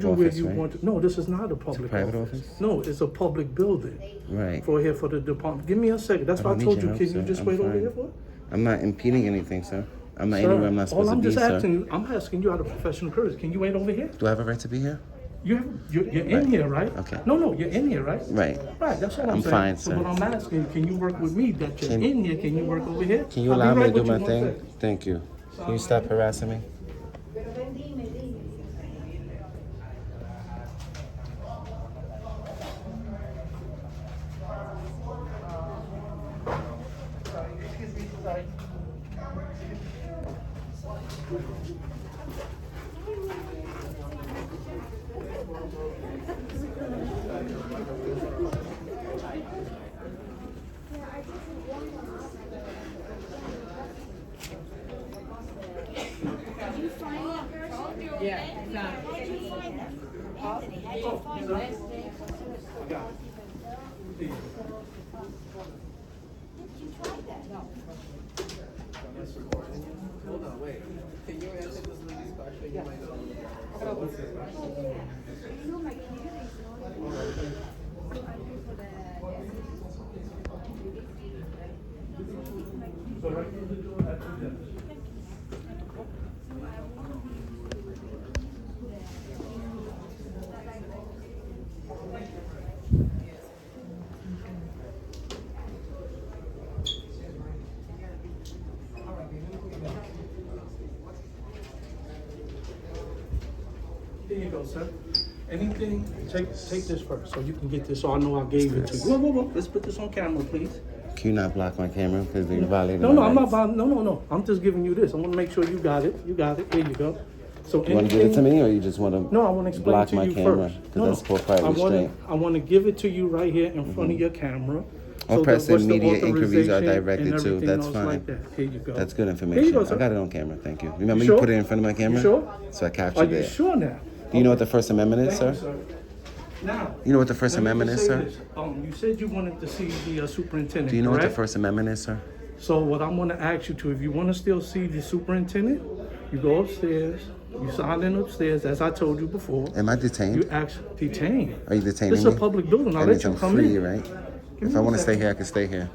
Do where Office, you right? want to, no, this is not a public private office. office? No, it's a public building Right. for here for the department. Give me a second, that's I why I don't told need you, your can help, you sir. just I'm wait over fine. here for it? I'm not impeding anything, sir. I'm not Sir, anywhere I'm not supposed All I'm to be, just asking sir. you, I'm asking you out of professional courtesy, can you wait over here? Do I have a right to be here? You have, you're, you're in here, right? Okay. No, no, you're in here, right? Right. Right, that's all I'm I'm saying. fine, So sir. what I'm asking, can you work with me that you're Can- in here, can you work over here? Can you I'll be allow me to right do with you my one thing? sec. Thank you. Can you stop harassing me? Pero ven, dime, dime. Yeah, exactly. There you go, sir. Anything, take, take this first, so you can get this, so I know I gave it to you. Whoa, whoa, whoa, let's put this on camera, please. Can you not block my camera because you're violating No, no, my I'm not rights? buying. No, no, no. I'm just giving you this. I want to make sure you got it. You got it. Here you go. So You want to give it to me or you just want to No, I want to explain block to my you camera? first. Because No, that's no. for private I wanna- restraint. I want to give it to you right here in front of your camera. All So that press and what's the media inquiries are authorization directed and to. everything That's else like fine. that. Here you go. That's Here good you information. go, I sir. got it on camera. Thank you. Remember, sure? you put it in front of my camera? sure? So I Are captured you it. sure now? Do you know what the First Amendment is, Thank you, sir? sir. Now. You know what the First let me Amendment just is, say sir? this. Um, you said you wanted to see the uh, superintendent, Do you know what the correct? First Amendment is, sir? So what I'm gonna ask you to, if you wanna still see the superintendent, you go upstairs, you sign in upstairs, as I told you before. Am I detained? You actually detain. Are you detaining This is a me? public building, I'll I let need you I'm come free, in. right? If I want to stay here, I can stay here.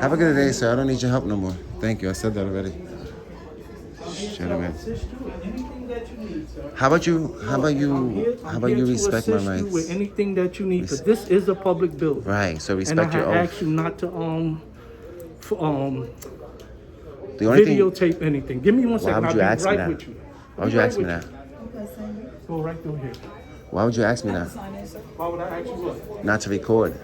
Have a good day, sir. I don't need your help no more. Thank you. I said that already. Shit, I'll man. assist you with anything that you need, sir. How about you? How about I'm here- you? I'm How about here you to respect my assist you With rights? anything that you need, because this is a public building. Right. So And I respect had your asked oath. you not to, um, f- um, The only thing. videotape anything. Give me one second, would I'll you be ask me right that? with you. Why would you I'll be ask me right that? with you. Go right through here. Why would you ask me that? Why would I ask you what? Not to record.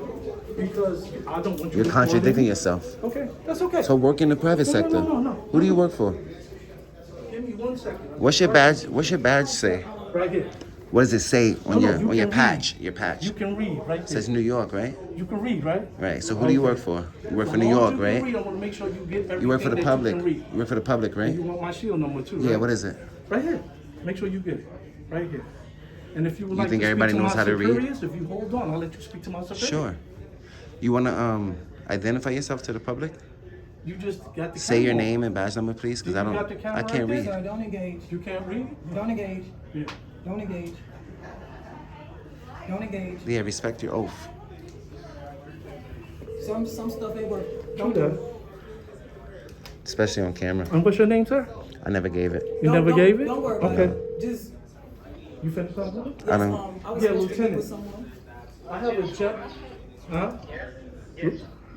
Because I don't want you. You're recording. contradicting yourself. Okay, that's okay. So work in the private No, no, no, sector. no, no. Who do you work for? Give me one second. What's your badge? What's your badge say? Right here. What does it say No, on no, your you on your can read. patch? Your patch You can read right there. says New York, right? You can read, right? Right. So who do you work for? You work for New As long as York, you can right? read, I want to make sure you get everything You work for that the you public. can read. You work for the public, right? You want my shield number too, right? Yeah. What is it? Right here. Make sure you get it. Right here. And if you would like think to everybody speak to knows my how to read? superiors, if you hold on, I'll let you speak to my superiors. Sure. You wanna um identify yourself to the public? You just got the Say your camera. name and badge number, please, because I You don't. got the camera I can't right there? read. No, don't engage. You can't read? Don't engage. Yeah. Don't engage. Don't engage. Yeah. Respect your oath. Some some stuff ain't work. Don't Don't do it. Especially on camera. And what's your name, sir? I never gave it. You Don't- never don't- gave it? Don't worry about Okay. it. Just You finished up with it? I yes, don't- um, I was Yeah, supposed to meet Lieutenant. with someone. I have a gen, huh?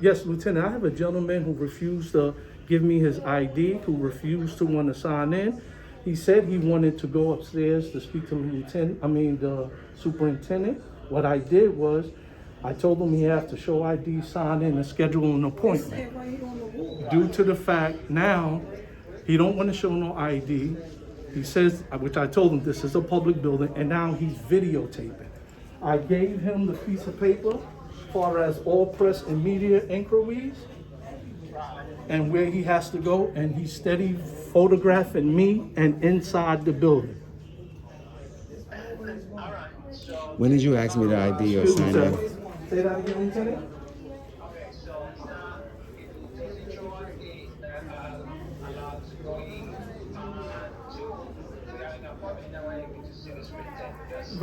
Yes, Lieutenant, I have a gentleman who refused to give me his ID, who refused to want to sign in. He said he wanted to go upstairs to speak to the lieutenant, I mean, the superintendent. What I did was, I told him he has to show ID, sign in, and schedule an appointment. Said right here on the wall. due to the fact now he don't want to show no ID. He says, uh, which I told him, this is a public building, and now he's videotaping. I gave him the piece of paper, far as all press and media inquiries, and where he has to go, and he's steady photographing me and inside the building. When did you ask me to ID or Excuse sign me, in? sir. Say that again, Lieutenant?